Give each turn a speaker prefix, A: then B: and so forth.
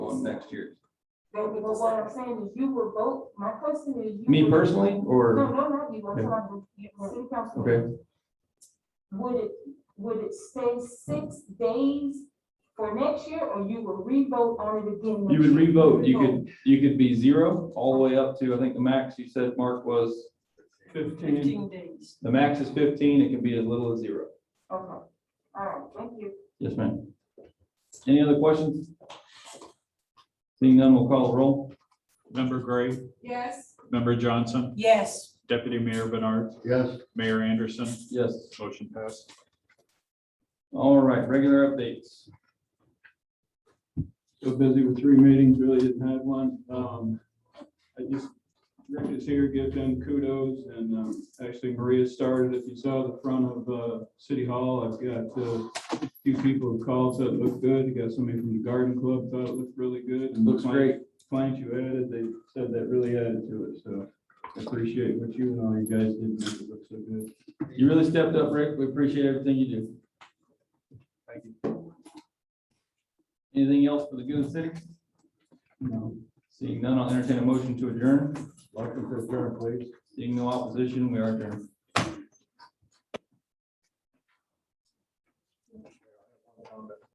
A: next year.
B: But but what I'm saying is you will vote, my question is. you
A: Me
B: will-
A: personally,
B: No,
A: or,
B: no, not you, I'm talking, to city council.
A: okay,
B: Would it, would it stay six days for next year, or you will re-vote on it
A: you
B: again? next
A: would
B: year?
A: re-vote, you could, you could be zero, all the way up to, I think the max you said, Mark, was,
C: Fifteen,
D: fifteen days.
A: the max is fifteen, it can be as little as zero.
B: Okay, all right, thank you.
A: Yes, ma'am. Any other questions? Seeing none, we'll call the roll.
E: Member Gray,
D: Yes.
E: Member Johnson,
D: Yes,
E: Deputy Mayor Bernard,
F: yes,
E: Mayor Anderson,
A: Yes.
E: motion passed.
A: All right, regular updates.
G: so busy with three meetings, really didn't have one. Um, I just, Rick is here, give them kudos, and, um, actually Maria started, if you saw the front of, uh, City Hall, I've got, uh, a few people who called, said it looked good, you got somebody from the Garden Club, thought it looked really good. and the
A: Looks
G: plant-
A: great.
G: Plant you added, they said that really added to it, so I appreciate what you and all you guys did, make it look so good.
A: You really stepped up, Rick. We appreciate everything you do.
G: Thank you.
A: Anything else for the good of the city? No. Seeing none, I'll entertain a motion to adjourn.
G: Welcome to the please.
A: Seeing no opposition, we are adjourned.